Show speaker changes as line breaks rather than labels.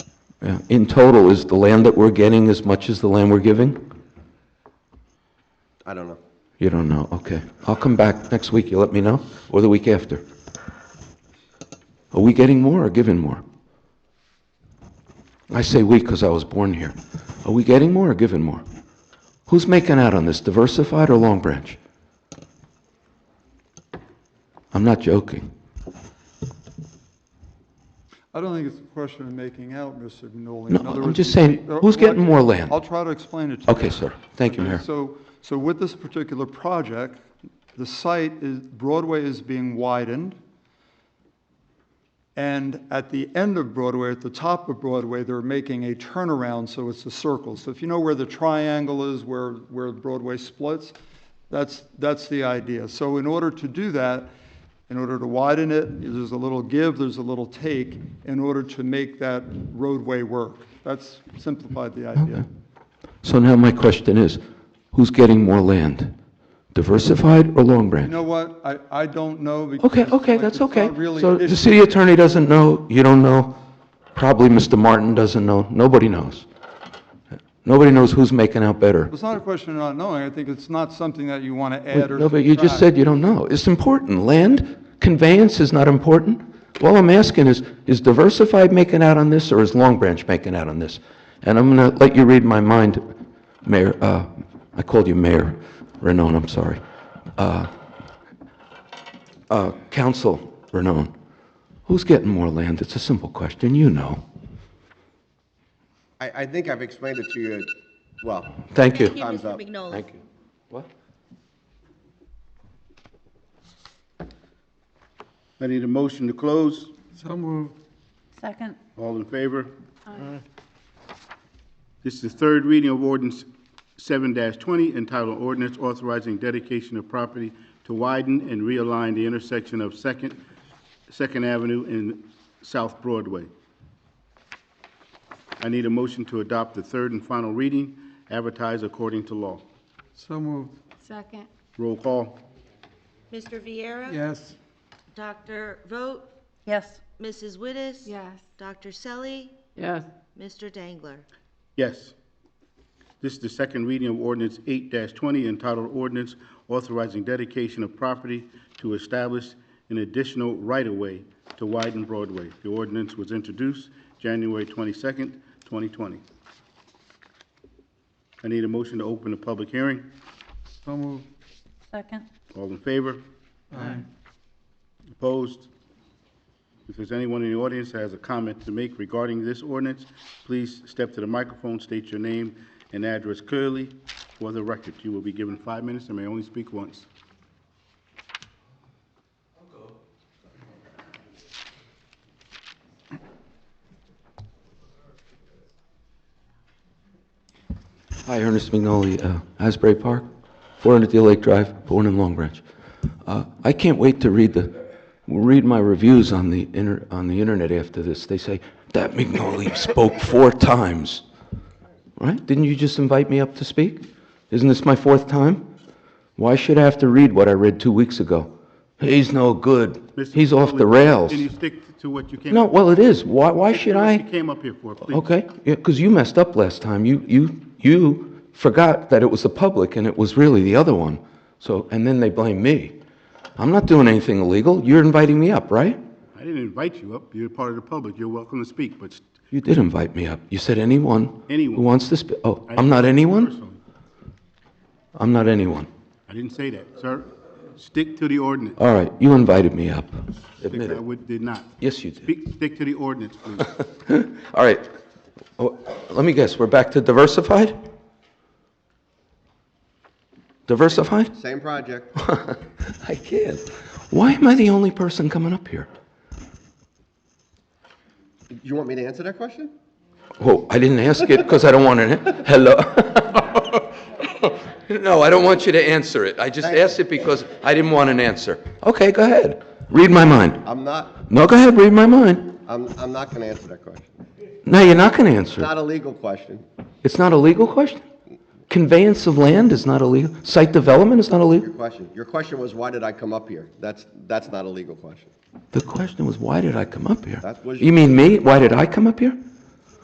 Yeah. In total, is the land that we're getting as much as the land we're giving?
I don't know.
You don't know, okay. I'll come back next week, you let me know, or the week after. Are we getting more or giving more? I say we because I was born here. Are we getting more or giving more? Who's making out on this, Diversified or Long Branch? I'm not joking.
I don't think it's a question of making out, Mr. Minoli.
No,
In other
I'm
words,
just saying,
there-
who's getting
what-
more land?
I'll try to explain it to you.
Okay, sir. Thank you,
Okay,
Mayor.
So, so with this particular project, the site is, Broadway is being widened. And at the end of Broadway, at the top of Broadway, they're making a turnaround, so it's a circle. So if you know where the triangle is, where, where Broadway splits, that's, that's the idea. So in order to do that, in order to widen it, there's a little give, there's a little take, in order to make that roadway work. That's simplified the idea.
So now my question is, who's getting more land, Diversified or Long Branch?
You know what, I, I don't know because.
Okay, okay,
like,
that's
it's not
okay.
really
So
an
the
issue.
city attorney doesn't know, you don't know, probably Mr. Martin doesn't know, nobody knows. Nobody knows who's making out better.
It's not a question of not knowing, I think it's not something that you want to add or.
No, but you just
subtract.
said you don't know. It's important. Land conveyance is not important. All I'm asking is, is Diversified making out on this, or is Long Branch making out on this? And I'm going to let you read my mind, Mayor, uh, I called you Mayor Renone, I'm sorry. Uh, uh, Council Renone, who's getting more land? It's a simple question, you know.
I, I think I've explained it to you, well,
Thank you.
Thank you,
Time's
Mr.
up.
Mignola.
Thank you. What?
I need a motion to close.
Second.
All in favor? Aye. This is the third reading of ordinance seven twenty entitled ordinance authorizing dedication of property to widen and realign the intersection of Second, Second Avenue and South Broadway. I need a motion to adopt the third and final reading, advertised according to law.
Second.
Roll call.
Mr. Viera? Yes. Dr. Vogt,
Yes.
Mrs. Wittes?
Yes.
Dr. Selly,
yes,
Mr. Dangler?
Yes. This is the second reading of ordinance eight twenty entitled ordinance authorizing dedication of property to establish an additional right-of-way to widen Broadway. The ordinance was introduced January twenty-second, twenty twenty. I need a motion to open the public hearing.
Second.
All in favor? Aye. Opposed? If there's anyone in the audience that has a comment to make regarding this ordinance, please step to the microphone, state your name and address clearly for the record. You will be given five minutes and may only speak once.
Hi, Ernest McNolly, uh, Asbury Park, 400 Deal Lake Drive, born in Long Branch. Uh, I can't wait to read the, read my reviews on the inter, on the internet after this. They say, "That McNolly spoke four times." Right? Didn't you just invite me up to speak? Isn't this my fourth time? Why should I have to read what I read two weeks ago? He's no good.
Mr.
He's off the
Foley,
rails.
Can you stick to what you came?
No, well, it is. Why, why
What
should I?
You came up here for, please.
Okay, yeah, because you messed up last time. You, you, you forgot that it was the public and it was really the other one. So, and then they blame me. I'm not doing anything illegal. You're inviting me up, right?
I didn't invite you up. You're part of the public. You're welcome to speak, but
You did invite me up. You said anyone who
Anyone.
wants to speak. Oh,
I
I'm not anyone?
personally,
I'm not anyone.
I didn't say that, sir. Stick to the ordinance.
All right, you invited me up. Admit
I
it.
would, did not.
Yes, you did.
Speak, stick to the ordinance, please.
All right. Oh, Let me guess, we're back to diversified? Diversified?
same project.
I can't. Why am I the only person coming up here?
You want me to answer that question?
Well, I didn't ask it because I don't want to, hello? No, I don't want you to answer it. I just asked it because I didn't want an answer. Okay, go ahead. Read my mind.
I'm not,
No, go ahead, read my mind.
I'm, I'm not gonna answer that question.
No, you're not going to answer. it.
Not a legal question.
It's not a legal question? Conveyance of land is not illegal? Site development is not illegal?
Your question, your question was, why did I come up here? That's, that's not a legal question.
The question was, why did I come up here?
That was-
You mean me? Why did I come up here?